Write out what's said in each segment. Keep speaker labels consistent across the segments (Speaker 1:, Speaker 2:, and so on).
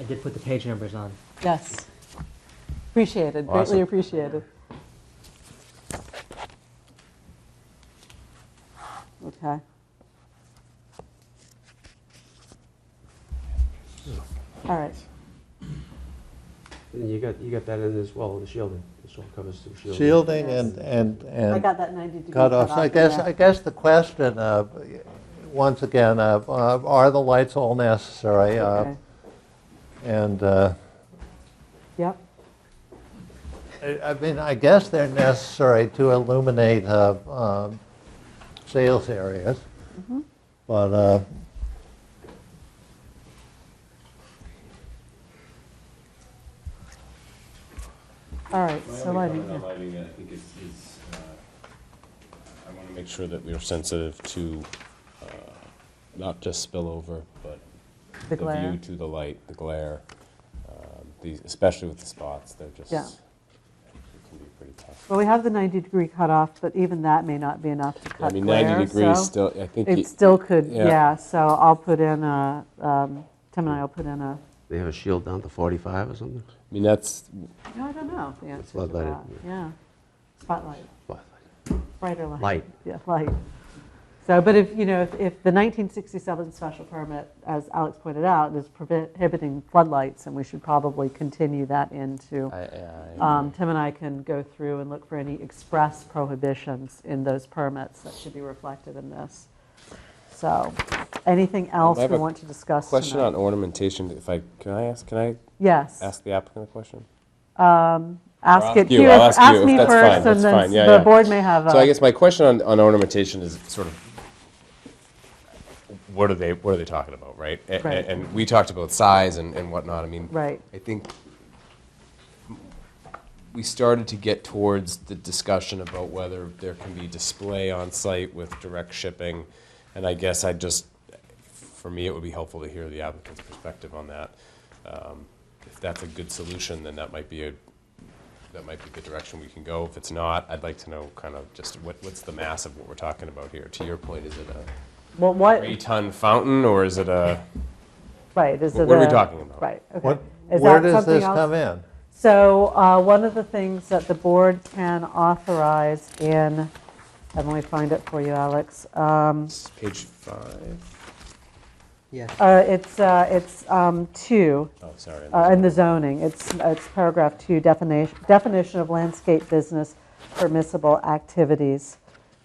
Speaker 1: I did put the page numbers on.
Speaker 2: Yes. Appreciated,
Speaker 3: Awesome.
Speaker 2: greatly appreciated. Okay. All right,
Speaker 4: And you got, you got that in as well, the shielding, this all covers through shielding.
Speaker 3: Shielding
Speaker 2: Yes.
Speaker 3: and, and,
Speaker 2: I
Speaker 3: and
Speaker 2: got that 90 degree cut
Speaker 3: cutoffs.
Speaker 2: off.
Speaker 3: I guess,
Speaker 2: yeah.
Speaker 3: I guess the question, uh, once again, uh, uh, are the lights all necessary? Uh,
Speaker 2: Okay.
Speaker 3: And uh,
Speaker 2: Yep,
Speaker 3: I I mean, I guess they're necessary to illuminate uh, um, sales areas,
Speaker 2: Mm-hmm.
Speaker 3: but uh,
Speaker 2: all right,
Speaker 5: My
Speaker 2: so
Speaker 5: only
Speaker 2: lighting,
Speaker 5: comment on
Speaker 2: yeah.
Speaker 5: lighting, I think, is, is, uh, I want to make sure that we are sensitive to, uh, not just spillover, but
Speaker 2: the
Speaker 5: the view
Speaker 2: glare,
Speaker 5: to the light, the glare, um, these, especially with the spots, they're just,
Speaker 2: Yeah.
Speaker 5: it can be pretty tough.
Speaker 2: well, we have the 90 degree cutoff, but even that may not be enough to
Speaker 5: I
Speaker 2: cut
Speaker 5: mean,
Speaker 2: glare,
Speaker 5: 90 degrees
Speaker 2: so-
Speaker 5: still, I think,
Speaker 2: It
Speaker 5: it-
Speaker 2: still could,
Speaker 5: yeah.
Speaker 2: yeah, so I'll put in a, um, Tim and I will put in a,
Speaker 4: They have a shield down to 45 or something?
Speaker 5: I mean, that's,
Speaker 2: no, I don't know the answer to
Speaker 4: floodlighted,
Speaker 2: that. Yeah, spotlight,
Speaker 4: What?
Speaker 2: brighter light.
Speaker 4: Light.
Speaker 2: Yeah, light. So, but if, you know, if if the 1967 special permit, as Alex pointed out, is prohibiting floodlights, and we should probably continue that into, um, Tim and I can go through and look for any express prohibitions in those permits that should be reflected in this. So, anything else
Speaker 5: have
Speaker 2: we
Speaker 5: a
Speaker 2: want to discuss tonight?
Speaker 5: question on ornamentation, if I, can I ask, can I
Speaker 2: Yes.
Speaker 5: ask the applicant a question?
Speaker 2: Ask
Speaker 5: I'll
Speaker 2: it
Speaker 5: ask you,
Speaker 2: here,
Speaker 5: I'll ask you
Speaker 2: ask
Speaker 5: if
Speaker 2: me
Speaker 5: that's fine,
Speaker 2: first, and
Speaker 5: that's
Speaker 2: then
Speaker 5: fine, yeah,
Speaker 2: the
Speaker 5: yeah.
Speaker 2: board may have uh,
Speaker 5: So I
Speaker 2: a,
Speaker 5: guess my question on, on ornamentation is sort of, what are they, what are they talking about, right? A- a-
Speaker 2: Right.
Speaker 5: And we talked about size and, and whatnot, I mean.
Speaker 2: Right.
Speaker 5: I think we started to get towards the discussion about whether there can be display on-site with direct shipping. And I guess I just, for me, it would be helpful to hear the applicant's perspective on that. Um, If that's a good solution, then that might be a, that might be the direction we can go. If it's not, I'd like to know kind of just what, what's the mass of what we're talking about here? To your point, is it a
Speaker 2: well, what,
Speaker 5: three-ton fountain or is it a,
Speaker 2: right, is it
Speaker 5: What are we
Speaker 2: a-
Speaker 5: talking about?
Speaker 2: Right, okay.
Speaker 3: what,
Speaker 2: Is
Speaker 3: where
Speaker 2: that
Speaker 3: does
Speaker 2: something
Speaker 3: this
Speaker 2: else?
Speaker 3: come in?
Speaker 2: So, uh, one of the things that the board can authorize in, and let me find it for you, Alex. Um,
Speaker 5: it's page five?
Speaker 1: Yes.
Speaker 2: uh, It's, uh, it's um, two.
Speaker 5: Oh, sorry.
Speaker 2: Uh, in the zoning, it's, it's paragraph two, definition, definition of landscape business permissible activities.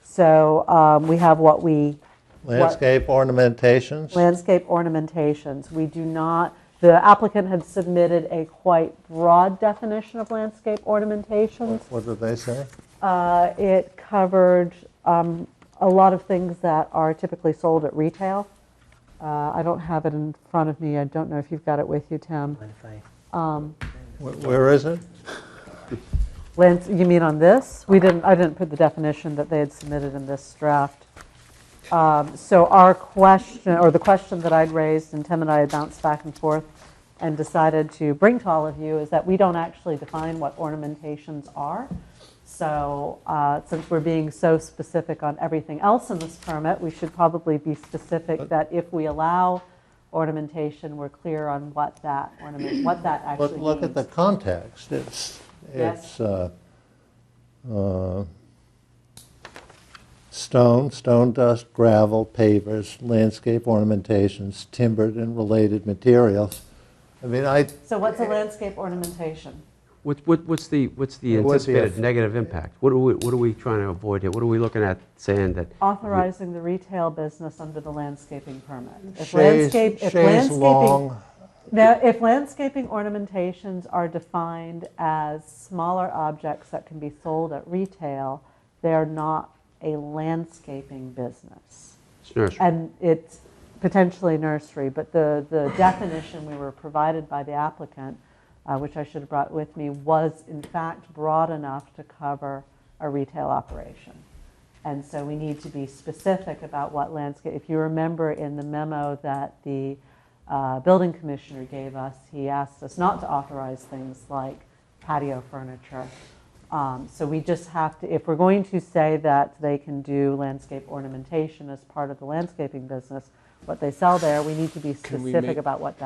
Speaker 2: So um, we have what we,
Speaker 3: Landscape ornamentations?
Speaker 2: landscape ornamentations. We do not, the applicant had submitted a quite broad definition of landscape ornamentations.
Speaker 3: What did they say?
Speaker 2: Uh, It covered um, a lot of things that are typically sold at retail. Uh, I don't have it in front of me, I don't know if you've got it with you, Tim.
Speaker 1: Mind
Speaker 2: Um,
Speaker 1: if I-
Speaker 3: Wh- Where is it?
Speaker 2: Lance, you mean on this? We didn't, I didn't put the definition that they had submitted in this draft. Um, So our question, or the question that I'd raised, and Tim and I had bounced back and forth and decided to bring to all of you, is that we don't actually define what ornamentations are. So uh, since we're being so specific on everything else in this permit, we should probably be specific that if we allow ornamentation, we're clear on what that ornament, what that actually
Speaker 3: Look,
Speaker 2: means.
Speaker 3: look at the context. It's,
Speaker 2: Yes.
Speaker 3: it's uh, uh, stone, stone dust, gravel, pavers, landscape ornamentations, timbered and related materials. I mean, I,
Speaker 2: So what's a landscape ornamentation?
Speaker 4: What, what- what's the, what's the
Speaker 3: It would be a-
Speaker 4: anticipated negative impact? What are we, what are we trying to avoid here? What are we looking at saying that?
Speaker 2: Authorizing the retail business under the landscaping permit. If
Speaker 3: Shays,
Speaker 2: landscape- if
Speaker 3: Shays
Speaker 2: landscaping-
Speaker 3: Long,
Speaker 2: Now, if landscaping ornamentations are defined as smaller objects that can be sold at retail, they're not a landscaping business.
Speaker 4: it's nursery?
Speaker 2: And it's potentially nursery, but the, the definition we were provided by the applicant, uh, which I should have brought with me, was in fact broad enough to cover a retail operation. And so we need to be specific about what landscape, if you remember in the memo that the uh, building commissioner gave us, he asked us not to authorize things like patio furniture. Um, So we just have to, if we're going to say that they can do landscape ornamentation as part of the landscaping business, what they sell there, we need to be
Speaker 5: Can we
Speaker 2: specific
Speaker 5: make-
Speaker 2: about what that